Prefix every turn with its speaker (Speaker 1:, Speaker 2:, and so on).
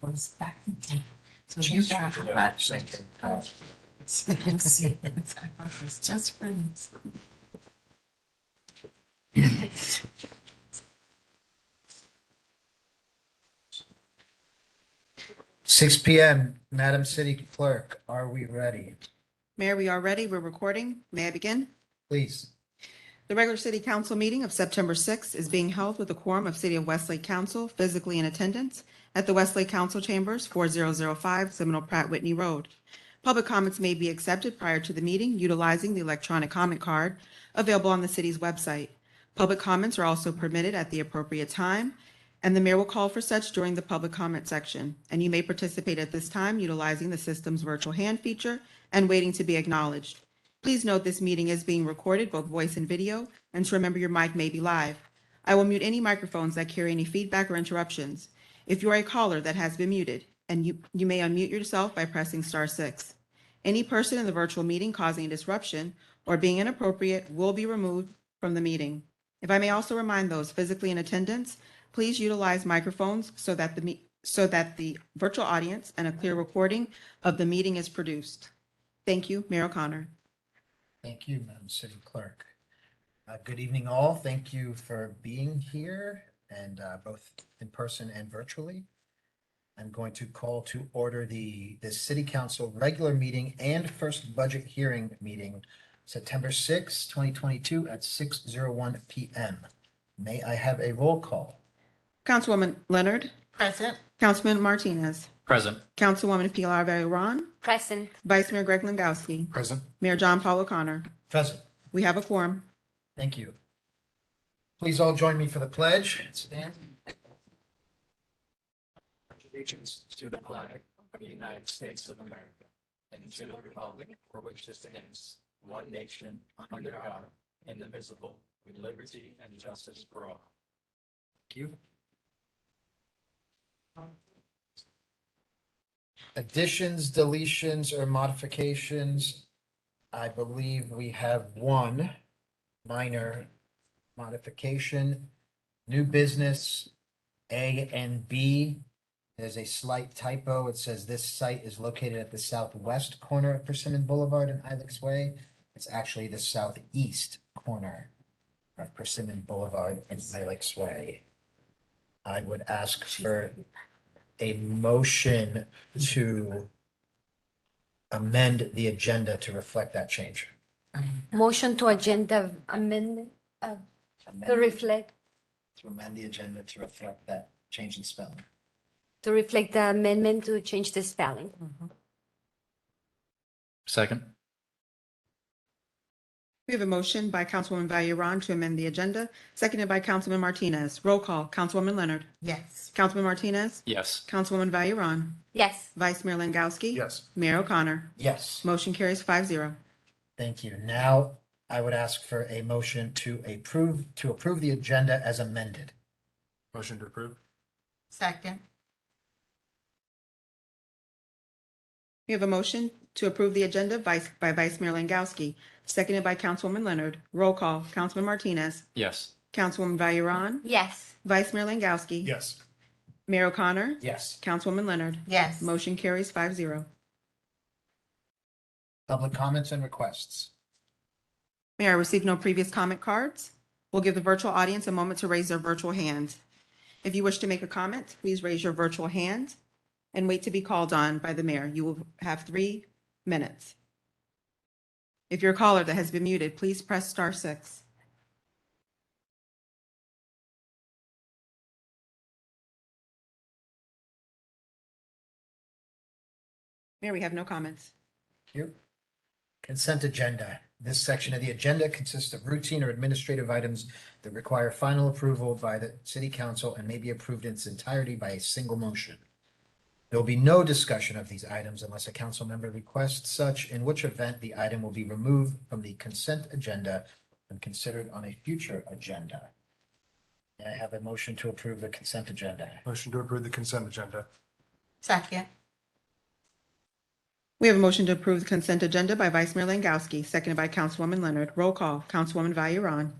Speaker 1: goes back in time. So you got a project. So you can see it's just friends.
Speaker 2: Six P M, Madam City Clerk, are we ready?
Speaker 3: Mayor, we are ready. We're recording. May I begin?
Speaker 2: Please.
Speaker 3: The regular city council meeting of September 6th is being held with a quorum of City of Westlake Council physically in attendance at the Westlake Council Chambers, 4005 Seminole Pratt Whitney Road. Public comments may be accepted prior to the meeting utilizing the electronic comment card available on the city's website. Public comments are also permitted at the appropriate time, and the mayor will call for such during the public comment section. And you may participate at this time utilizing the system's virtual hand feature and waiting to be acknowledged. Please note this meeting is being recorded, both voice and video, and to remember your mic may be live. I will mute any microphones that carry any feedback or interruptions. If you are a caller that has been muted, and you, you may unmute yourself by pressing star six. Any person in the virtual meeting causing a disruption or being inappropriate will be removed from the meeting. If I may also remind those physically in attendance, please utilize microphones so that the, me- so that the virtual audience and a clear recording of the meeting is produced. Thank you, Mayor O'Connor.
Speaker 2: Thank you, Madam City Clerk. Uh, good evening all. Thank you for being here and, uh, both in person and virtually. I'm going to call to order the, the City Council regular meeting and first budget hearing meeting, September sixth, twenty twenty-two at six zero one P M. May I have a roll call?
Speaker 3: Councilwoman Leonard,
Speaker 1: Present.
Speaker 3: Councilman Martinez,
Speaker 4: Present.
Speaker 3: Councilwoman Pilar Vayron,
Speaker 5: Present.
Speaker 3: Vice Mayor Greg Langowski,
Speaker 4: Present.
Speaker 3: Mayor John Paul O'Connor.
Speaker 2: Present.
Speaker 3: We have a quorum.
Speaker 2: Thank you. Please all join me for the pledge. Stand.
Speaker 4: Allegiance to the flag of the United States of America and to the republic for which it stands, one nation, under God, indivisible, with liberty and justice for all.
Speaker 2: Thank you. Additions, deletions, or modifications? I believe we have one minor modification. New business, A and B. There's a slight typo. It says this site is located at the southwest corner of Persimmon Boulevard and Ilex Way. It's actually the southeast corner of Persimmon Boulevard and Ilex Way. I would ask for a motion to amend the agenda to reflect that change.
Speaker 5: Motion to agenda amendment uh, to reflect,
Speaker 2: To amend the agenda to reflect that change in spelling.
Speaker 5: to reflect the amendment to change the spelling.
Speaker 4: Second.
Speaker 3: We have a motion by Councilwoman Vayron to amend the agenda, seconded by Councilman Martinez. Roll call, Councilwoman Leonard,
Speaker 1: Yes.
Speaker 3: Councilman Martinez,
Speaker 4: Yes.
Speaker 3: Councilwoman Vayron,
Speaker 5: Yes,
Speaker 3: Vice Mayor Langowski.
Speaker 4: Yes.
Speaker 3: Mayor O'Connor.
Speaker 2: Yes,
Speaker 3: Motion carries five zero.
Speaker 2: thank you. Now I would ask for a motion to approve, to approve the agenda as amended.
Speaker 4: Motion to approve.
Speaker 1: Second.
Speaker 3: We have a motion to approve the agenda vice- by Vice Mayor Langowski, seconded by Councilwoman Leonard. Roll call, Councilman Martinez,
Speaker 4: Yes.
Speaker 3: Councilwoman Vayron,
Speaker 5: yes,
Speaker 3: Vice Mayor Langowski.
Speaker 4: Yes.
Speaker 3: Mayor O'Connor,
Speaker 2: Yes.
Speaker 3: Councilwoman Leonard.
Speaker 1: Yes.
Speaker 3: Motion carries five zero.
Speaker 2: Public comments and requests.
Speaker 3: Mayor, I received no previous comment cards. We'll give the virtual audience a moment to raise their virtual hand. If you wish to make a comment, please raise your virtual hand and wait to be called on by the mayor. You will have three minutes. If you're a caller that has been muted, please press star six. Mayor, we have no comments.
Speaker 2: Thank you. Consent agenda. This section of the agenda consists of routine or administrative items that require final approval by the city council and may be approved in its entirety by a single motion. There will be no discussion of these items unless a council member requests such, in which event the item will be removed from the consent agenda and considered on a future agenda. May I have a motion to approve the consent agenda.
Speaker 6: Motion to approve the consent agenda.
Speaker 1: Second.
Speaker 3: We have a motion to approve the consent agenda by Vice Mayor Langowski, seconded by Councilwoman Leonard. Roll call, Councilwoman Vayuron.